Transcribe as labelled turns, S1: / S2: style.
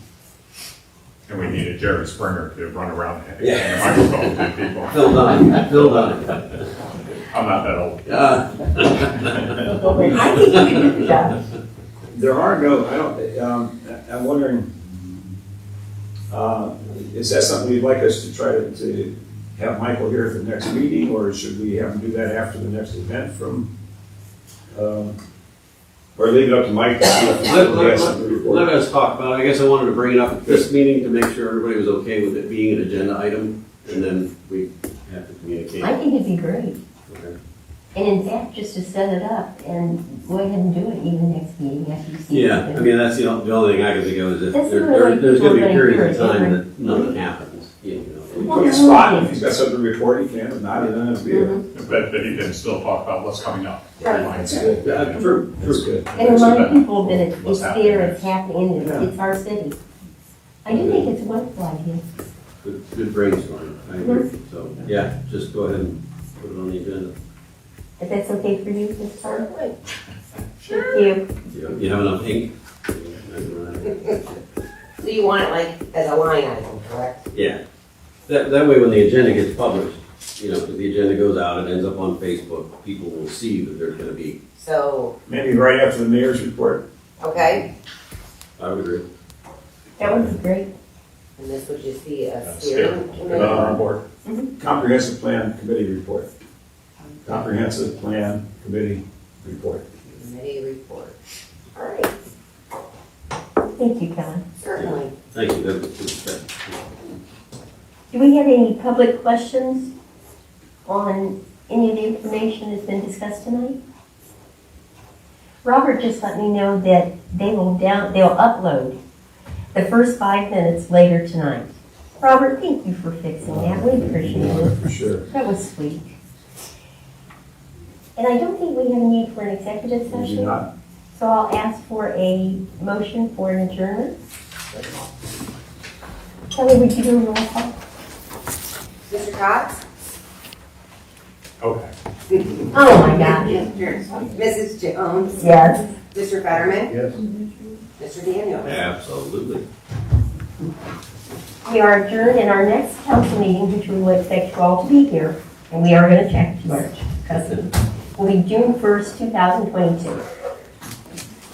S1: And we needed Jerry Springer to run around and
S2: Yeah.
S1: hand the microphone to people.
S2: Phil Dunn, Phil Dunn.
S1: I'm not that old.
S2: Uh,
S3: I think you can do that.
S4: There are no, I don't, um, I- I'm wondering, uh, is that something you'd like us to try to, to have Michael here at the next meeting, or should we have him do that after the next event from, um, or leave it up to Mike? to see if he
S2: Let, let,
S4: has
S2: let-
S4: something to report?
S2: let us talk about it. I guess I wanted to bring it up at this meeting to make sure everybody was okay with it being an agenda item, and then we have to communicate.
S5: I think it'd be great.
S2: Okay.
S5: And in fact, just to set it up and go ahead and do it even next meeting after you see.
S2: Yeah, I mean, that's the only, the only thing I can think of is if
S5: That's
S2: there,
S5: sort of
S2: there-
S5: like
S2: there's gonna be
S5: going
S2: periods
S5: through
S2: of
S5: a
S2: time
S5: different-
S2: that nothing happens, you know.
S4: We put a spot, if he's got something to report, he can, if not, then it'll be, a-
S1: But, but you can still talk about what's coming up.
S5: Right.
S4: that's good,
S2: Uh, for- for-
S4: that's good.
S5: And remind people that it's,
S1: What's
S5: it's
S1: happening.
S5: there, it's happening, and
S4: Yeah.
S5: it's, it's our city. I do think it's a wonderful idea.
S2: Good, good brainstorm, I agree, so, yeah, just go ahead and put it on the agenda.
S5: If that's okay for you, Ms. Carter? Sure. Thank you.
S2: You you have enough ink? I don't know.
S6: So you want it like as a line item, correct?
S2: Yeah, that, that way when the agenda gets published, you know, because the agenda goes out, it ends up on Facebook, people will see that there's gonna be,
S6: So,
S4: Maybe right after the mayor's report,
S6: okay,
S2: I would agree.
S5: That would be great.
S6: and this would just be a
S1: Uh,
S6: steering
S1: steering. Put that
S6: committee.
S1: on our board.
S4: comprehensive plan committee report. Comprehensive plan committee report.
S6: Committee report. All right,
S5: Thank you, Kellen.
S6: certainly.
S2: Thank you, that was, that-
S5: Do we have any public questions on any of the information that's been discussed tonight? Robert just let me know that they will down, they'll upload the first five minutes later tonight. Robert, thank you for fixing that, we appreciate it,
S4: For sure.
S5: that was sweet. And I don't think we have a need for an executive
S4: Maybe
S5: session,
S4: not.
S5: so I'll ask for a motion for an adjournment. Kelly, would you do a roll call?
S6: Mr. Cox?
S1: Okay.
S5: Oh my God.
S6: Mrs. Jones?
S5: Yes.
S6: Mr. um, Fetterman?
S1: Yes.
S6: Mr. Daniel?
S2: absolutely.
S5: We are adjourned in our next council meeting, which we will expect you all to be here, and we are going to check March, because it will be June 1st, 2022.